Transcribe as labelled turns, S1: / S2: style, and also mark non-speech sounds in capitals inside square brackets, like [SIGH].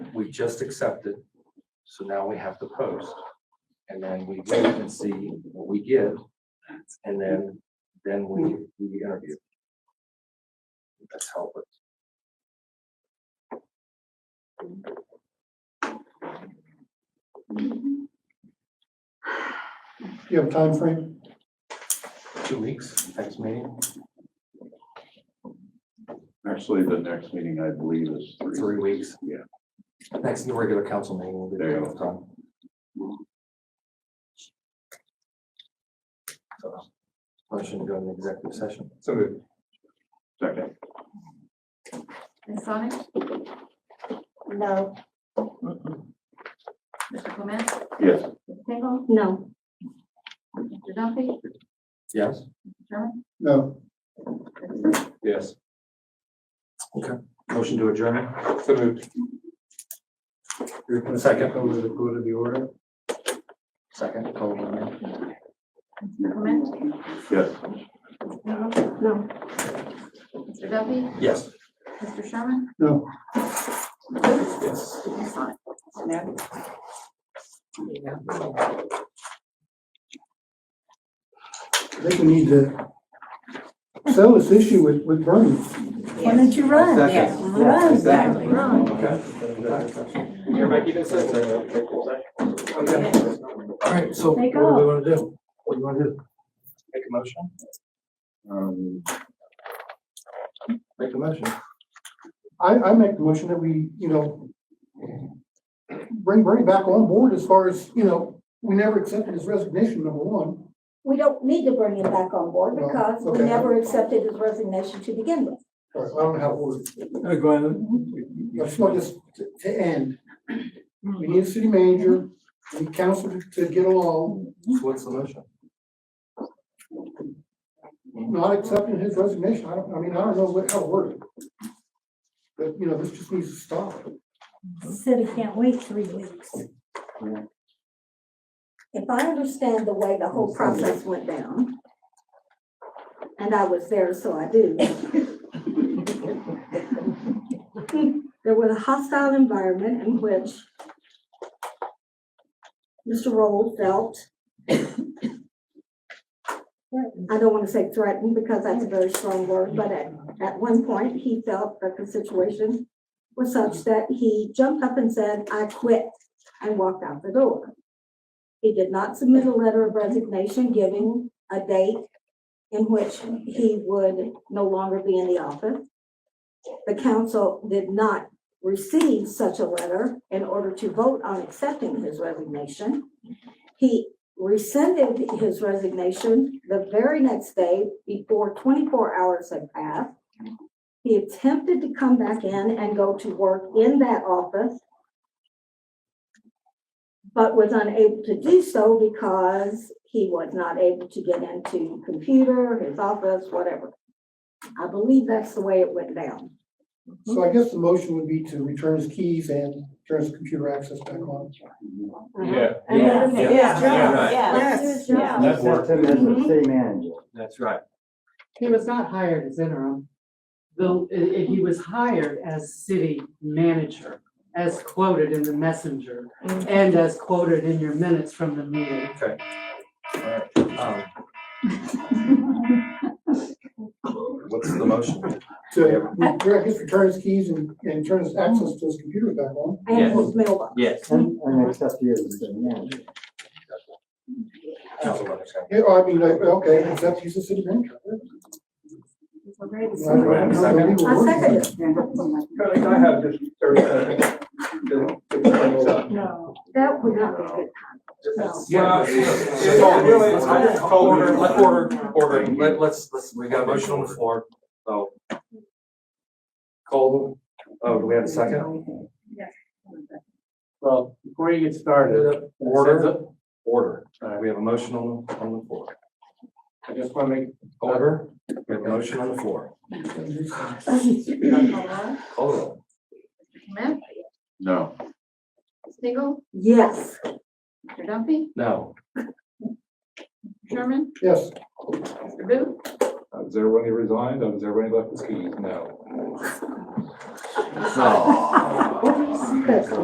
S1: we just accepted, so now we have to post. And then we wait and see what we get, and then, then we, we interview. That's how it. works.
S2: Do you have a time frame?
S1: Two weeks, next meeting,
S3: Actually, the next meeting, I believe, is
S1: three
S3: three.
S1: weeks.
S3: Yeah.
S1: Next regular council meeting will be
S3: There you
S1: the time. So, Motion to go into executive session.
S2: So moved.
S3: Second,
S4: Ms. Sonic?
S5: No.
S4: Mr. Clement?
S3: yes.
S4: Ms. Tingle?
S5: No.
S4: Mr. Duffy?
S1: Yes?
S4: Mr. Sherman?
S2: No.
S1: Yes. Okay, motion to adjourn.
S2: So moved.
S1: Second.
S2: Go to, go to the order.
S1: Second.
S4: Mr. Clement?
S3: Yes.
S4: Ms. Tingle?
S5: No.
S4: Mr. Duffy?
S1: Yes.
S4: Mr. Sherman?
S2: No.
S1: Yes.
S4: Ms. Sonic?
S2: They can need to settle this issue with, with Bernie.
S5: Why don't you run?
S1: Second.
S5: Run, exactly, run.
S1: Yeah, Mike, you said All right, so what do
S5: Take
S1: we want to do? What do you want to do? Make a motion?
S3: Um,
S1: Make a motion.
S2: I, I make the motion that we, you know, bring Bernie back on board as far as, you know, we never accepted his resignation, number one.
S6: We don't need to bring him back on board
S2: Well,
S6: because we
S2: okay.
S6: never accepted his resignation to begin with.
S2: All right, I don't know how it works. I just want this to, to end. We need a city manager, we need council to- to get along,
S1: So what's the motion?
S2: not accepting his resignation. I don't, I mean, I don't know what, how to word it. But, you know, this just needs to stop.
S5: City can't wait three weeks.
S6: If I understand the way the whole process went down, and I was there, so I do. There was a hostile environment in which Mr. Roll felt, I don't want to say threatened because that's a very strong word, but at, at one point, he felt that the situation was such that he jumped up and said, I quit, and walked out the door. He did not submit a letter of resignation giving a date in which he would no longer be in the office. The council did not receive such a letter in order to vote on accepting his resignation. He rescinded his resignation the very next day before twenty-four hours had passed. He attempted to come back in and go to work in that office but was unable to do so because he was not able to get into computer, his office, whatever. I believe that's the way it went down.
S2: So I guess the motion would be to return his keys and turn his computer access back on.
S6: Uh-huh.
S7: Yeah.
S5: And let him do his
S7: Yeah. Yeah,
S5: job.
S7: right.
S5: Let him do his job.
S7: That's
S8: Accept him as the city manager.
S7: That's right.
S9: He was not hired as interim, though, i- i- he was hired as city manager, as quoted in the messenger, and as quoted in your minutes from the meeting.
S1: Um, What's the motion?
S2: To, re- I guess return his keys and, and turn his access to his computer back on.
S6: And his mailbox.
S7: Yes.
S8: And, and accept you as the city manager.
S1: Council understand.
S2: Yeah, I mean, like, okay, except he's a city manager. I don't know how the legal
S6: I
S2: word is.
S6: second it.
S10: Kelly, I have just thirty seconds. to- to bring this up.
S6: No. That would not be good. No.
S1: Yeah,
S10: It's all really- it's all- it's all-
S1: Order, let order, order, let, let's, let's, we got a motion on the floor, so. Call, the- oh, do we have a second?
S10: Well, before you get started,
S1: Order, order, All right, we have a motion on, on the floor.
S10: I just want to make,
S1: Order, we have a motion on the floor.
S4: Mr.
S1: Call the roll.
S4: Clement?
S3: no,
S4: Ms. Tingle?
S6: [LAUGHS] Yes.
S4: Mr. Duffy?
S1: No,
S4: Mr. Sherman?
S2: Yes.
S4: Mr. Booth?
S7: Has everybody resigned? Has everybody left his keys? No.
S1: no.
S6: Good.